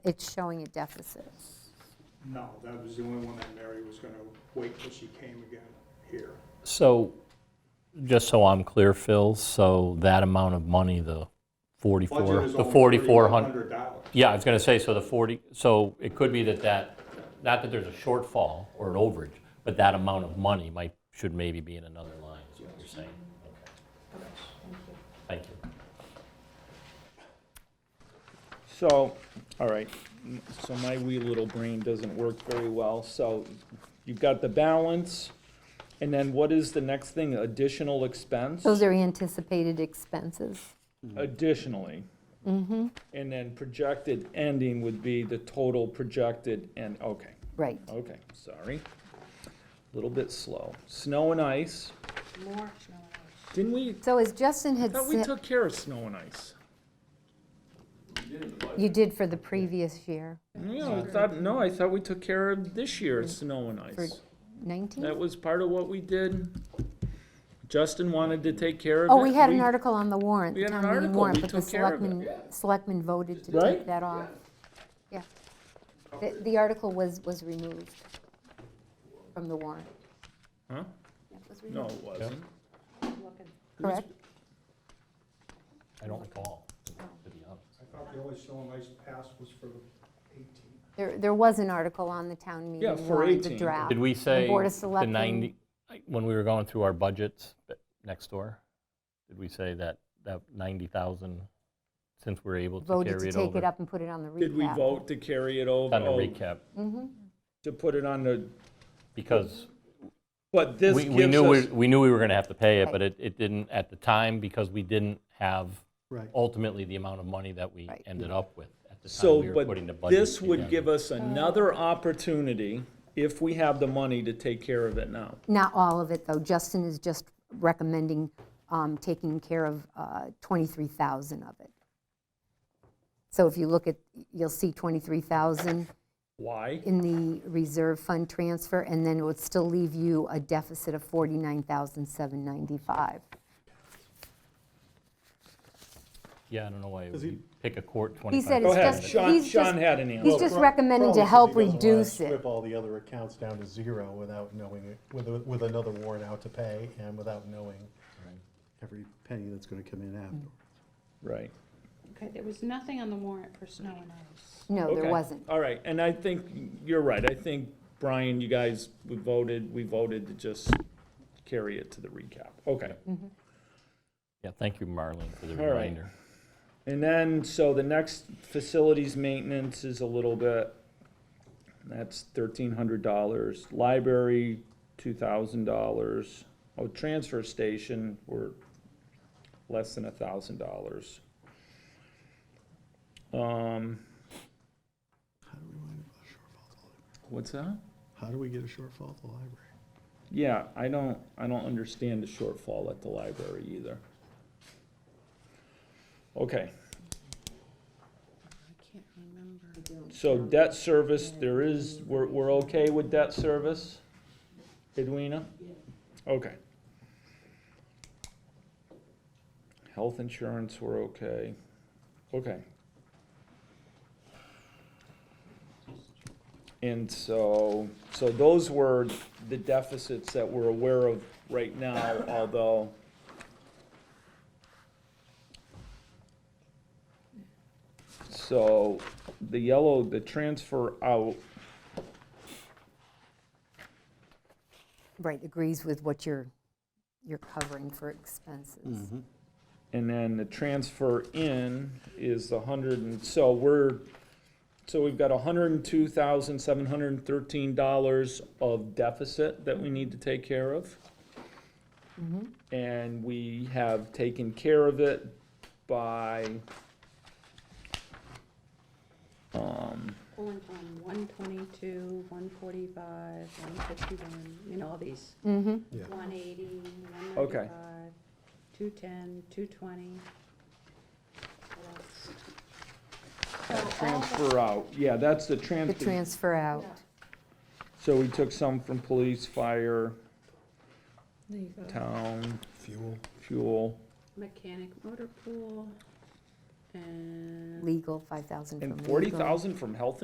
it's showing a deficit. No, that was the only one that Mary was gonna wait till she came again here. So, just so I'm clear, Phil, so that amount of money, the 44, Budget is the only 4,400. $3,100. Yeah, I was going to say, so the 40, so it could be that that, not that there's a shortfall or an overage, but that amount of money might, should maybe be in another line, is what you're saying. Okay. Thank you. So, all right, m- so my wee little brain doesn't work very well, so you've got the balance, and then what is the next thing, additional expense? Those are anticipated expenses. Additionally. Mm-hmm. And then projected ending would be the total projected end, okay, Right. okay, sorry. Little bit slow. Snow and ice, More snow and ice. didn't we, So as Justin had thought we said, took care of snow and ice? you did for the previous year, No, I thought, no, I thought we took care of this year's snow and for ice. 19? That was part of what we did. Justin wanted to take care of it. Oh, we had an article on the warrant, we had an town meeting article. warrant, We but the took care of it. selectmen, selectmen voted to Right? take that off. Yeah. The, the article was, was removed from the warrant. Huh? Yeah, it was No, removed, it wasn't. Looking. Correct? I don't recall, to be honest. I thought the only snow and ice pass was for 18. There, there was an article on the town meeting Yeah, for warrant, the 18. draft. Did we say Board of the Selectmen- 90, like, when we were going through our budgets but next door, did we say that, that 90,000, since we're able to carry it over? Voted to take it up and put it on the recap. Did we vote to carry it over? On the Oh, recap, To put it on the, because but this we we gives knew, we us, we knew we were going to have to pay it, but Right. it it didn't at the time because we didn't have Right. ultimately the amount of money that we Right. ended up with at the time so, we were but putting the budget this would together. give us Oh. another opportunity, if we have the money, to take care of it now. Not all of it, though. Justin is just recommending um, taking care of uh, 23,000 of it. So if you look at, you'll see 23,000 Why? in the reserve fund transfer, and then it would still leave you a deficit of 49,795. Yeah, I don't know why we pick a court He 25. said Go it's ahead, just. Sean, he's Sean just- had an answer. He's just recommending to help reduce it. Strip all the other accounts down to zero without knowing, it, with, a- with another warrant out to pay and without knowing every penny that's gonna come in after. Mm. Right. Okay, there was nothing on the warrant for snow and ice. No, there Okay. wasn't. All right, and I think you're right. I think, Brian, you guys, we voted, we voted to just carry it to the recap. Okay. Yeah, thank you, Marlene, for the All right. reminder. And then, so the next facilities maintenance is a little bit, that's thirteen hundred dollars. Library, two thousand dollars. Oh, transfer station, we're less than a thousand dollars. Um. What's that? How do we get a shortfall at the library? Yeah, I don't, I don't understand the shortfall at the library either. Okay, I can't remember. so debt service, there is, we're, we're okay with debt service? Edwina? Okay. Health insurance, we're okay. Okay. And so, so those were the deficits that we're aware of right now, although So the yellow, the transfer out, Right, agrees with what you're, you're covering for expenses. and then the transfer in is the hundred and, so we're, so we've got hundred and two thousand, seven hundred and thirteen dollars of deficit that we need to take care of. And we have taken care of it by, um, Pulling from one twenty-two, one forty-five, one fifty-one, you know, all these. Mm-hmm. Yeah. One eighty, one Okay. ninety-five, two ten, two twenty. What else? Oh, transfer out, yeah, that's the The transfer. transfer out. So we took some from police, fire, There you go. town, Fuel. fuel. Mechanic motor pool, and. legal, 5,000 from legal. And forty thousand from health